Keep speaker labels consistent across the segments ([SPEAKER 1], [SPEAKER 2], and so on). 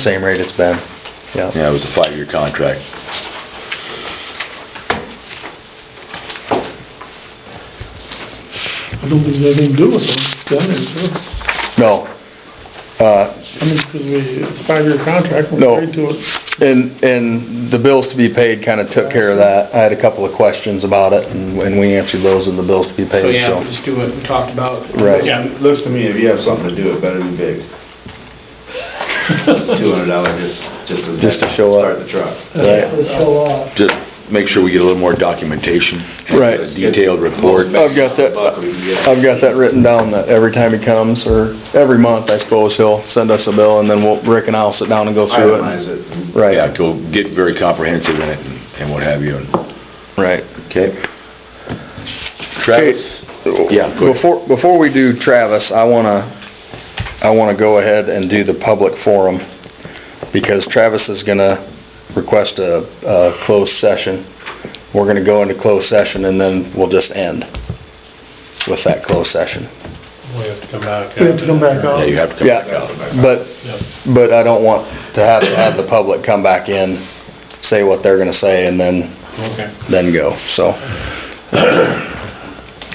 [SPEAKER 1] Same rate it's been, yeah.
[SPEAKER 2] Yeah, it was a five-year contract.
[SPEAKER 3] I don't think there's anything to do with them, done it, so,
[SPEAKER 1] No. Uh,
[SPEAKER 3] I mean, because we, it's a five-year contract,
[SPEAKER 1] No.
[SPEAKER 3] we're agreed to it.
[SPEAKER 1] And, and the bills to be paid kind of took care of that. I had a couple of questions about it, and and we answered those in the bills to be
[SPEAKER 4] So,
[SPEAKER 1] paid,
[SPEAKER 4] yeah,
[SPEAKER 1] so.
[SPEAKER 4] we'll just do what we talked about.
[SPEAKER 1] Right.
[SPEAKER 4] Yeah,
[SPEAKER 5] Looks to me, if you have something to do, it better be big. Two hundred dollars just, just to.
[SPEAKER 1] Just to show up.
[SPEAKER 5] Start the truck.
[SPEAKER 1] Right.
[SPEAKER 2] Just make sure we get a little more documentation.
[SPEAKER 1] Right.
[SPEAKER 2] A detailed report.
[SPEAKER 1] I've got that,
[SPEAKER 5] Buck, we can get-
[SPEAKER 1] I've got that written down, that every time he comes, or every month, I suppose, he'll send us a bill, and then we'll, Rick and I'll sit down and go through
[SPEAKER 5] Itemize
[SPEAKER 1] it.
[SPEAKER 5] it.
[SPEAKER 2] Yeah,
[SPEAKER 1] Right,
[SPEAKER 2] go get very comprehensive in it and- and what have you. and-
[SPEAKER 1] right.
[SPEAKER 2] Okay? Travis? Yeah, go ahead.
[SPEAKER 1] Before, before we do Travis, I wanna, I wanna go ahead and do the public forum, because Travis is gonna request a, a closed session. We're gonna go into closed session, and then we'll just end with that closed session.
[SPEAKER 6] We have to come back.
[SPEAKER 3] We have to come back
[SPEAKER 2] Yeah,
[SPEAKER 3] on.
[SPEAKER 2] you have to come back out.
[SPEAKER 1] Yeah, but,
[SPEAKER 6] Yep.
[SPEAKER 1] but I don't want to have, to have the public come back in, say what they're gonna say, and then
[SPEAKER 6] Okay.
[SPEAKER 1] then go, so.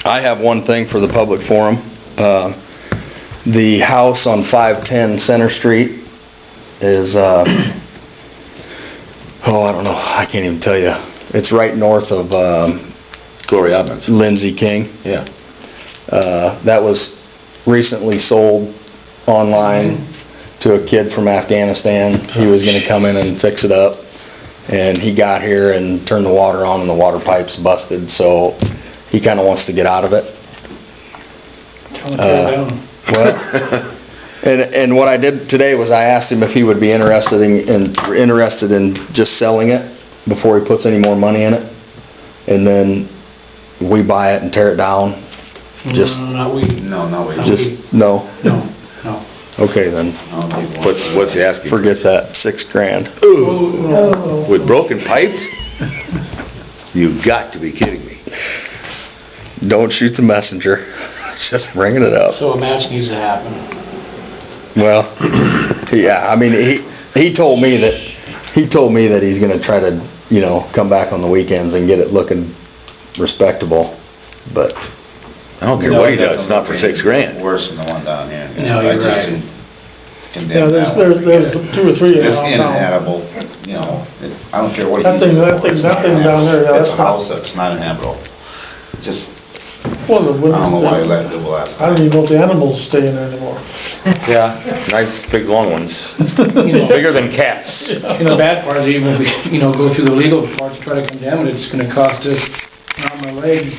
[SPEAKER 1] I have one thing for the public forum. Uh, The house on 510 Center Street is, uh, oh, I don't know, I can't even tell you. It's right north of um,
[SPEAKER 2] Glory Evans.
[SPEAKER 1] Lindsay King.
[SPEAKER 2] Yeah.
[SPEAKER 1] Uh, That was recently sold online to a kid from Afghanistan. He was gonna come in and fix it up, and he got here and turned the water on, and the water pipe's busted, so he kinda wants to get out of it.
[SPEAKER 3] Tell them to go
[SPEAKER 1] Uh,
[SPEAKER 3] down.
[SPEAKER 1] Well, and, and what I did today was I asked him if he would be interested in, in- interested in just selling it before he puts any more money in it, and then we buy it and tear it down. Just,
[SPEAKER 4] No, not we,
[SPEAKER 5] No, no, we.
[SPEAKER 1] just, no?
[SPEAKER 4] no, no.
[SPEAKER 1] Okay, then.
[SPEAKER 5] I don't think one-
[SPEAKER 2] What's, what's he asking?
[SPEAKER 1] Forget that, six grand.
[SPEAKER 3] Oh.
[SPEAKER 2] With broken pipes? You've got to be kidding me.
[SPEAKER 1] Don't shoot the messenger, just bringing it up.
[SPEAKER 4] So a match needs to happen.
[SPEAKER 1] Well, yeah, I mean, he, he told me that, he told me that he's gonna try to, you know, come back on the weekends and get it looking respectable, but,
[SPEAKER 2] I don't care
[SPEAKER 5] No,
[SPEAKER 2] what he
[SPEAKER 5] it
[SPEAKER 2] does,
[SPEAKER 5] doesn't
[SPEAKER 2] not for
[SPEAKER 5] look any
[SPEAKER 2] six grand.
[SPEAKER 5] Worse than the one down here.
[SPEAKER 4] No,
[SPEAKER 5] I
[SPEAKER 4] you're
[SPEAKER 5] just
[SPEAKER 4] right.
[SPEAKER 5] seen- condemn
[SPEAKER 3] Yeah, there's,
[SPEAKER 5] that one
[SPEAKER 3] there's,
[SPEAKER 5] to get
[SPEAKER 3] there's
[SPEAKER 5] it.
[SPEAKER 3] two or three of
[SPEAKER 5] It's
[SPEAKER 3] them down.
[SPEAKER 5] inhabitable, you know, it- I don't care what you
[SPEAKER 3] That
[SPEAKER 5] use
[SPEAKER 3] thing-
[SPEAKER 5] it
[SPEAKER 3] that
[SPEAKER 5] for,
[SPEAKER 3] thing-
[SPEAKER 5] it's
[SPEAKER 3] that
[SPEAKER 5] not
[SPEAKER 3] thing down there, yeah,
[SPEAKER 5] inhabitable.
[SPEAKER 3] that's
[SPEAKER 5] It's a
[SPEAKER 3] not-
[SPEAKER 5] house that's not inhabitable. Just,
[SPEAKER 3] Well, the
[SPEAKER 5] I
[SPEAKER 3] wood-
[SPEAKER 5] don't know why we let it do last
[SPEAKER 3] I don't
[SPEAKER 5] time.
[SPEAKER 3] even know if the animals stay in there anymore.
[SPEAKER 2] Yeah, nice big long ones,
[SPEAKER 4] You know,
[SPEAKER 2] bigger than cats.
[SPEAKER 4] And the bad part is even if we, you know, go through the legal part to try to condemn it, it's gonna cost us an arm and a leg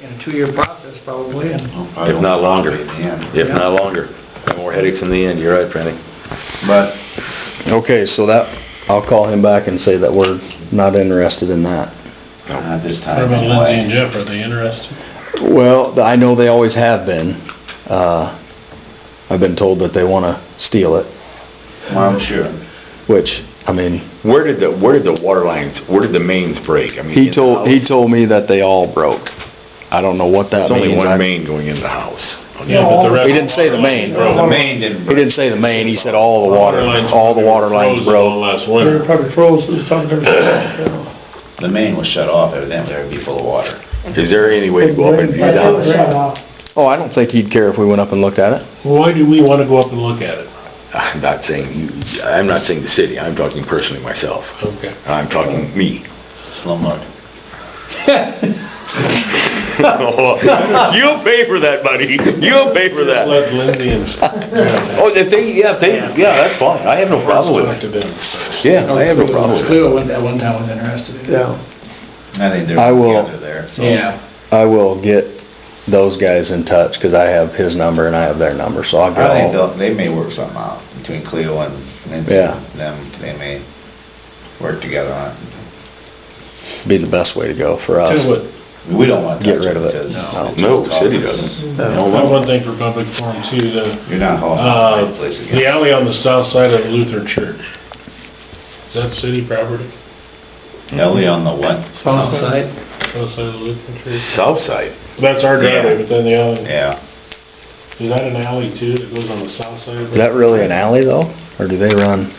[SPEAKER 4] in a two-year process probably, and
[SPEAKER 2] If not longer.
[SPEAKER 5] In the end.
[SPEAKER 2] If not longer. More headaches in the end, you're right, Franny.
[SPEAKER 5] But
[SPEAKER 1] okay, so that, I'll call him back and say that we're not interested in that.
[SPEAKER 5] Not this
[SPEAKER 6] What
[SPEAKER 5] time,
[SPEAKER 6] about Lindsay and
[SPEAKER 5] anyway.
[SPEAKER 6] Jeff, are they interested?
[SPEAKER 1] Well, I know they always have been, uh, I've been told that they wanna steal it,
[SPEAKER 5] Well, I'm sure.
[SPEAKER 1] which, I mean,
[SPEAKER 2] Where did the, where did the water lines, where did the mains break? I mean, in
[SPEAKER 1] he
[SPEAKER 2] the
[SPEAKER 1] told, he
[SPEAKER 2] house?
[SPEAKER 1] told me that they all broke. I don't know what that
[SPEAKER 2] There's
[SPEAKER 1] means.
[SPEAKER 2] only one
[SPEAKER 1] I-
[SPEAKER 2] main going in the house.
[SPEAKER 6] Yeah, but the rest-
[SPEAKER 1] He didn't say the main.
[SPEAKER 5] The main didn't
[SPEAKER 1] He didn't say the main, he said all the water,
[SPEAKER 6] lines
[SPEAKER 1] all the water lines
[SPEAKER 6] frozen all
[SPEAKER 1] broke.
[SPEAKER 6] Last
[SPEAKER 3] They were
[SPEAKER 6] winter.
[SPEAKER 3] probably froze, it was talking to everybody.
[SPEAKER 5] The main was shut off evidently, it'd be full of water.
[SPEAKER 2] Is there any way to go up and view the house?
[SPEAKER 1] Oh, I don't think he'd care if we went up and looked at it.
[SPEAKER 6] Why do we want to go up and look at it?
[SPEAKER 2] I'm not saying you, I'm not saying the city, I'm talking personally myself.
[SPEAKER 6] Okay.
[SPEAKER 2] I'm talking me.
[SPEAKER 5] Slumlord.
[SPEAKER 2] You'll pay for that, buddy. You'll pay for
[SPEAKER 6] Just
[SPEAKER 2] that.
[SPEAKER 6] Let Lindsay and.
[SPEAKER 2] Oh, if they, yeah, if they, yeah, that's fine. I have no problem with it. Yeah, I have no problem with it.
[SPEAKER 4] Cleo went- at one time was interested in it.
[SPEAKER 3] Yeah.
[SPEAKER 5] I think they're
[SPEAKER 1] I will-
[SPEAKER 5] together there, so.
[SPEAKER 4] Yeah,
[SPEAKER 1] I will get those guys in touch, because I have his number and I have their number, so I'll
[SPEAKER 5] I think
[SPEAKER 1] get all.
[SPEAKER 5] they'll, they may work something out between Cleo and Lindsay.
[SPEAKER 1] Yeah.
[SPEAKER 5] Them, they may work together on it.
[SPEAKER 1] Be the best way to go for
[SPEAKER 5] Uh,
[SPEAKER 1] us.
[SPEAKER 6] Tell you what,
[SPEAKER 5] We don't want to
[SPEAKER 1] Get
[SPEAKER 5] touch it
[SPEAKER 1] rid of it.
[SPEAKER 5] because
[SPEAKER 1] No.
[SPEAKER 5] it's
[SPEAKER 2] No,
[SPEAKER 5] just
[SPEAKER 2] city
[SPEAKER 5] causes-
[SPEAKER 2] doesn't.
[SPEAKER 6] I have one thing for public forum too, the,
[SPEAKER 5] You're not hauling
[SPEAKER 6] uh,
[SPEAKER 5] out the place again.
[SPEAKER 6] the alley on the south side of the Lutheran Church. Is that city property?
[SPEAKER 5] Ellie on the what?
[SPEAKER 4] south side.
[SPEAKER 6] South side of the Lutheran Church?
[SPEAKER 2] South side.
[SPEAKER 6] That's our
[SPEAKER 5] Yeah.
[SPEAKER 6] driveway, but then the alley,
[SPEAKER 5] Yeah.
[SPEAKER 6] is that an alley too that goes on the south side? of the-
[SPEAKER 1] Is that really an alley though, or do they run?